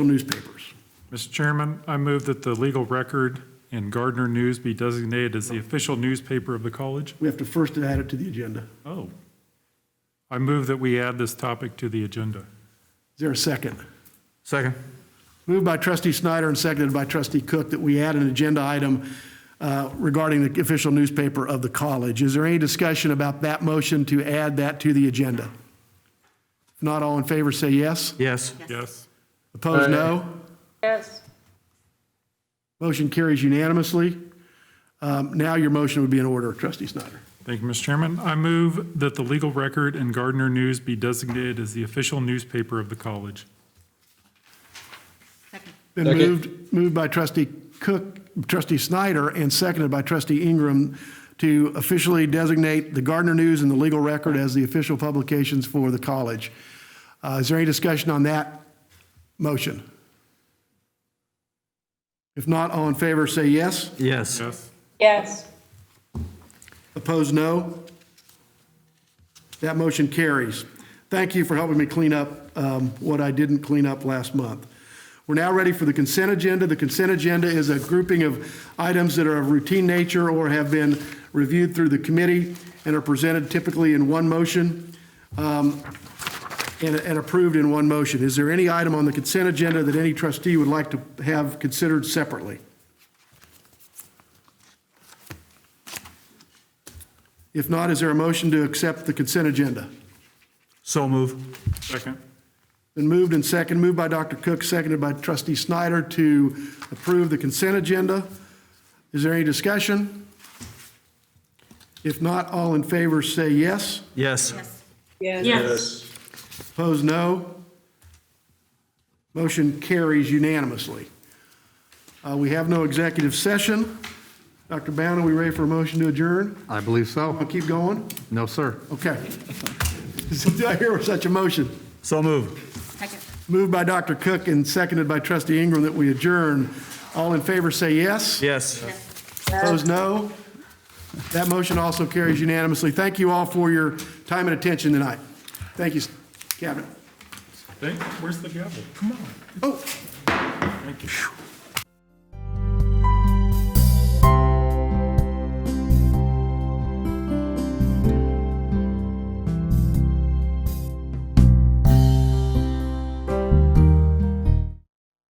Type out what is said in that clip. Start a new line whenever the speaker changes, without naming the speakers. newspapers.
Mr. Chairman, I move that the legal record and Gardner News be designated as the official newspaper of the college.
We have to first add it to the agenda.
Oh. I move that we add this topic to the agenda.
Is there a second?
Second.
Moved by trustee Snyder and seconded by trustee Cook that we add an agenda item uh, regarding the official newspaper of the college. Is there any discussion about that motion to add that to the agenda? If Not all in favor, say yes.
Yes.
Yes.
Opposed, no.
Yes.
Motion carries unanimously. Um, Now your motion would be in order, trustee Snyder.
Thank you, Mr. Chairman. I move that the legal record and Gardner News be designated as the official newspaper of the college.
Been
Second.
moved, moved by trustee Cook, trustee Snyder, and seconded by trustee Ingram to officially designate the Gardner News and the Legal Record as the official publications for the college. Uh, Is there any discussion on that motion? If not, all in favor, say yes.
Yes.
Yes.
Yes.
Opposed, no. That motion carries. Thank you for helping me clean up um, what I didn't clean up last month. We're now ready for the consent agenda. The consent agenda is a grouping of items that are of routine nature or have been reviewed through the committee and are presented typically in one motion um, and and approved in one motion. Is there any item on the consent agenda that any trustee would like to have considered separately? If not, is there a motion to accept the consent agenda?
So move.
Second.
Been moved and second, moved by Dr. Cook, seconded by trustee Snyder to approve the consent agenda. Is there any discussion? If not, all in favor say yes.
Yes.
Yes.
Opposed, no. Motion carries unanimously. Uh, We have no executive session. Dr. Bound, are we ready for a motion to adjourn?
I believe
I'll
so.
keep going?
No, sir.
Okay. Did I hear such a motion?
So move.
Moved by Dr. Cook and seconded by trustee Ingram that we adjourn. All in favor say yes.
Yes.
Opposed, no. That motion also carries unanimously. Thank you all for your time and attention tonight. Thank you, Cabinet.
Thank- Where's the gavel? Come on.
Oh,
Thank you.